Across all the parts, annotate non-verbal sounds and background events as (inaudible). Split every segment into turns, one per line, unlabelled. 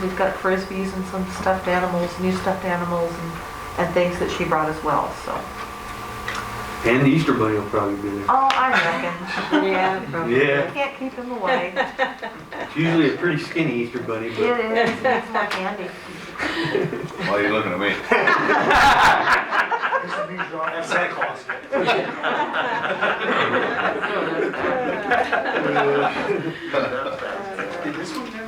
We've got frisbees and some stuffed animals, new stuffed animals and, and things that she brought as well, so.
And the Easter Bunny will probably be there.
Oh,
(laughs)
I reckon. Yeah. probably.
Yeah.
Can't keep him
(laughs)
away.
It's usually a pretty skinny Easter Bunny,
It
but
is, he's my candy.
Why are you looking at me?
That's Santa Claus. Did this one have?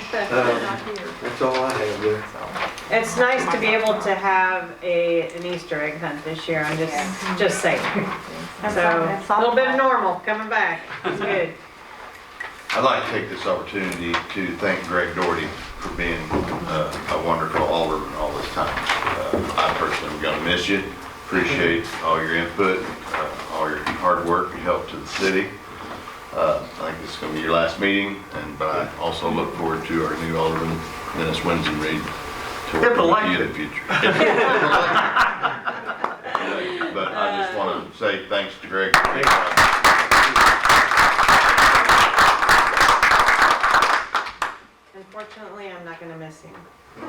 um, that's all I have there.
It's nice to be able to have a, an Easter egg hunt this year, I'm just, just saying.
That's
So,
all- that's
a
all
little bit
I-
of normal coming back,
(laughs)
it's good.
I'd like to take this opportunity to thank Greg Doherty for being uh, a wonderful alderman all this time. Uh, I personally am going to miss you. Appreciate all your input, uh, all your hard work and help to the city. Uh, I think this is going to be your last meeting, and but I also look forward to our new alderman, Dennis Winston Reed, to
They're
work with you in the future. (laughs) But I just want to say thanks to Greg.
Unfortunately, I'm not gonna miss (laughs) him.
I'm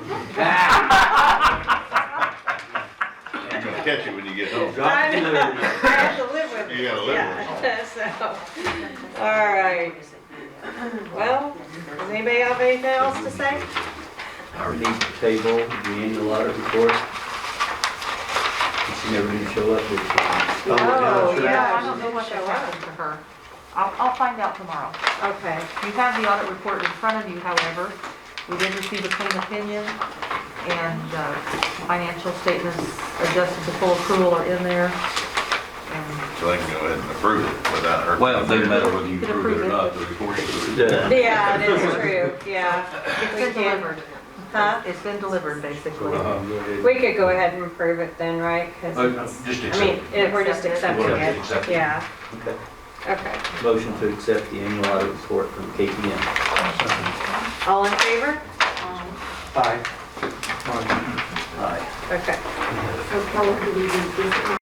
going to catch you when you get home.
Drop it there.
I have to live with it.
You gotta live with it.
Yeah, (laughs) so, all right. Well, does anybody have anything else to say?
Our need to table, the annual audit report. She never did show up. did she?
Oh, yeah, sure.
yeah.
I don't know what that happened to her. I'll, I'll find out tomorrow.
Okay,
You have the audit report in front of you, however. We did receive a clean opinion and, uh, financial statements adjusted to full accrual are in there. And
So they can go ahead and approve it without her.
Well, it doesn't matter whether you
Could
approve it or
approve it.
not, the report is.
Yeah.
yeah, it is true, yeah,
It's
We
been
can't-
delivered.
huh?
It's been delivered, basically.
Uh-huh, go ahead.
We could go ahead and approve it then, right? 'Cause-
Uh, Just
I mean,
accept.
it- we're just accepting
We're
it,
just accepting it.
yeah,
Okay.
okay.
Motion to accept the annual audit report from KPM.
All in favor? Um,
Aye.
Okay.
How long do we do this?